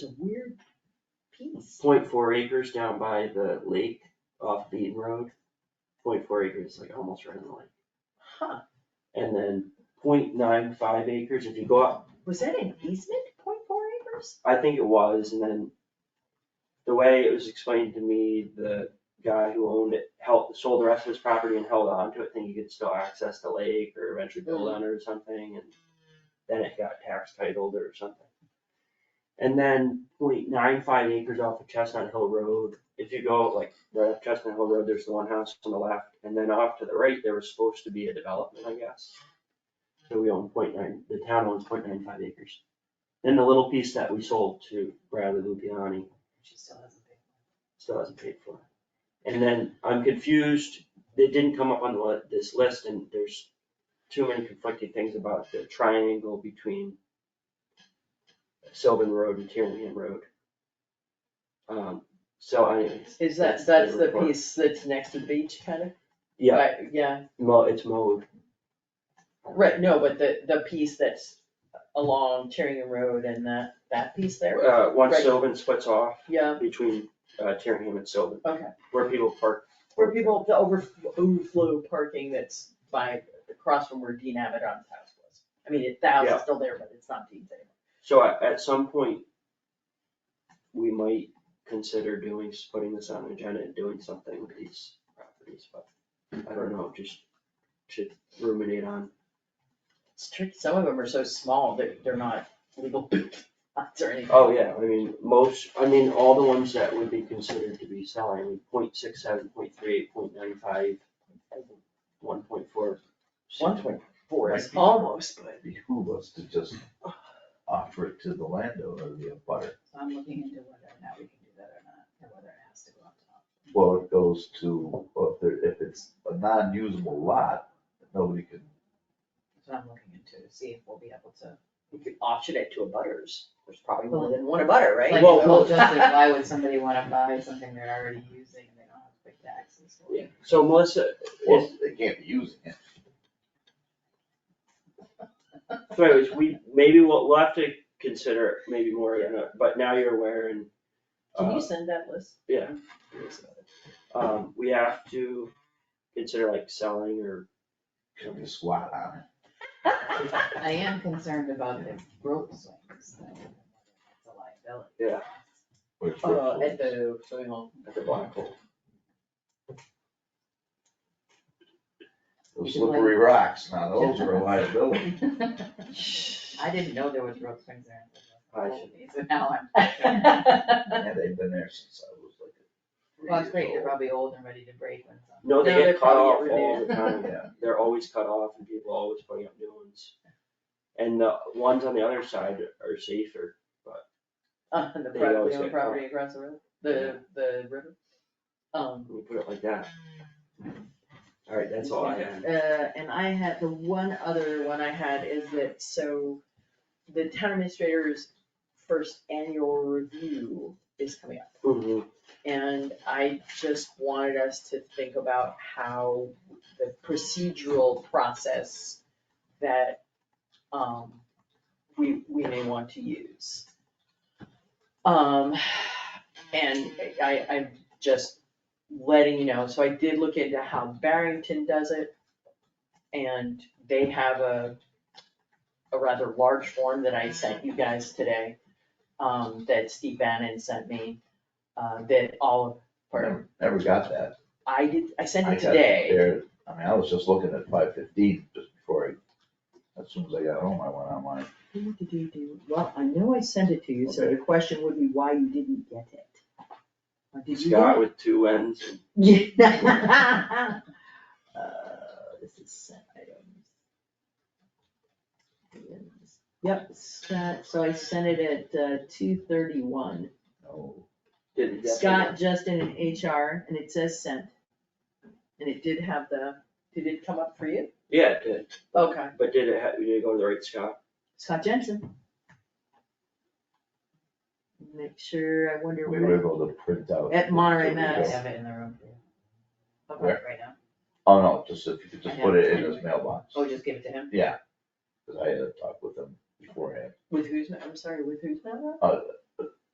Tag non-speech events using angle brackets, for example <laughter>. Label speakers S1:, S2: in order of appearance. S1: a weird piece.
S2: point four acres down by the lake off Beaton Road. Point four acres, like almost right in the lake.
S1: Huh,
S2: And then point nine five acres, if you go up,
S1: was that an easement, point four acres?
S2: I think it was, and then the way it was explained to me, the guy who owned it held, sold the rest of his property and held on to it, thinking he could still access the lake or eventually build on it or something, and then it got tax titled or something. And then point nine five acres off of Chestnut Hill Road, if you go like right up Chestnut Hill Road, there's the one house on the left, and then off to the right, there was supposed to be a development, I guess. So we own point nine, the town owns point nine five acres. And the little piece that we sold to Bradley Lupiani
S1: She still hasn't paid.
S2: still hasn't paid for. And then I'm confused, it didn't come up on the li- this list and there's too many conflicting things about the triangle between Sylvan Road and Tierney Road. Um, so anyways,
S3: Is
S2: That's
S3: that,
S2: the
S3: that's the
S2: report.
S3: piece that's next to the beach kind of?
S2: yeah,
S3: Right, Yeah,
S2: mo, it's mowed.
S3: right, no, but the, the piece that's along Tieringham Road and that, that piece there?
S2: Uh, once
S3: Right.
S2: Sylvan splits off
S3: Yeah,
S2: between, uh, Tierney and Sylvan.
S3: Okay.
S2: Where people park.
S3: where people, the over, overflow parking that's by, across from where Dean Abaddon's house was. I mean, it- the house
S2: Yeah.
S3: is still there, but it's not Dean's anymore.
S2: So at, at some point, we might consider doing, putting this on an agenda and doing something with these properties, but I don't know, just to ruminate on.
S3: It's tricky, some of them are so small that they're not legal <coughs> lots or anything.
S2: Oh, yeah, I mean, most, I mean, all the ones that would be considered to be selling, point six seven, point three eight, point nine five, one point four.
S3: One point four is
S4: Might be.
S3: almost, but
S4: It behoove us to just offer it to the landowner, the abutter.
S1: So I'm looking into whether or not we can do that or not, and whether it has to go up top.
S4: Well, it goes to, well, if there, if it's a non-usable lot, nobody can,
S1: That's what I'm looking into, to see if we'll be able to.
S3: you could auction it to a butters, there's probably more than one a butter, right?
S1: Like,
S2: Well,
S1: well, just
S3: <laughs> uh,
S1: like, why would somebody wanna buy something they're already using and they don't have to pay taxes for it?
S2: So Melissa,
S4: well,
S2: is,
S4: they can't be using it.
S2: so anyways, we, maybe we'll, we'll have to consider maybe more, you know, but now you're aware and.
S3: Can
S2: uh,
S3: you send that <laughs> list?
S2: Yeah. Um, we have to consider like selling or,
S4: Should be a squat on it.
S3: Uh,
S1: I am concerned about the rope swings, though, and whether that's a liability.
S2: Yeah.
S4: or it's
S3: Uh,
S4: worth
S3: at
S4: it.
S3: the, swimming <laughs> hall.
S2: at the black hole.
S4: Those slippery rocks, now those are a liability.
S1: <laughs> I didn't know there was rope swings there.
S2: I
S1: So now I'm.
S4: Yeah, they've been there since I was like. three
S1: <laughs> Well, it's great, they're
S4: years
S1: probably old and ready to break when some.
S2: No, they
S3: No, they're
S2: get cut off
S3: probably get
S2: all the
S4: old.
S1: <laughs>
S2: time.
S4: Yeah,
S2: They're always cut off and people always putting up new ones. And the ones on the other side are safer.
S3: Uh, the
S2: They
S3: pro-
S2: always
S3: the
S2: get
S3: property across the road, the, the river. Um,
S2: Let me put it like that. All right, that's all I have.
S3: Uh, and I had, the one other one I had is that, so the town administrator's first annual review is coming up.
S2: Mhm.
S3: And I just wanted us to think about how the procedural process that, um, we, we may want to use. Um, and I, I'm just letting you know, so I did look into how Barrington does it. And they have a, a rather large form that I sent you guys today, um, that Steve Bannon sent me, uh, that all of, pardon,
S4: Never, never got that.
S3: I did, I sent
S4: I
S3: it
S4: got
S3: today.
S4: there- I mean, I was just looking at five fifteen just before I, as soon as I got home, I went online.
S1: Who did you do? Well, I know I sent it to you, so the
S4: Okay.
S1: question would be why you didn't get it. Or did you
S2: Scott
S1: get
S2: with two ends. and-
S1: it? <laughs> Yeah. Uh, This is sent items. Yep, Scott, so I sent it at uh, two thirty-one.
S4: No,
S2: Did it
S1: Scott,
S2: definitely-
S1: Justin and HR, and it says sent. And it did have the,
S3: Did it come up for you?
S2: Yeah, it did.
S3: Okay.
S2: But did it, ha- did it go to the right Scott?
S1: Scott Jensen. Make sure, I wonder
S4: we
S1: where.
S4: were able to print out.
S1: At Monterey
S4: the-
S1: Mass. Yes.
S4: the-
S1: Have
S3: it in the room for you.
S1: Okay,
S4: Where?
S1: right now.
S4: Oh, no, just if you could
S3: I
S4: just
S3: have
S4: put it
S3: it
S4: in his
S3: anyway.
S4: mailbox,
S3: Oh, just give it to him?
S4: cause I had a talk with him beforehand.
S3: With whose, ma- I'm sorry, with whose mailbox?
S4: Uh,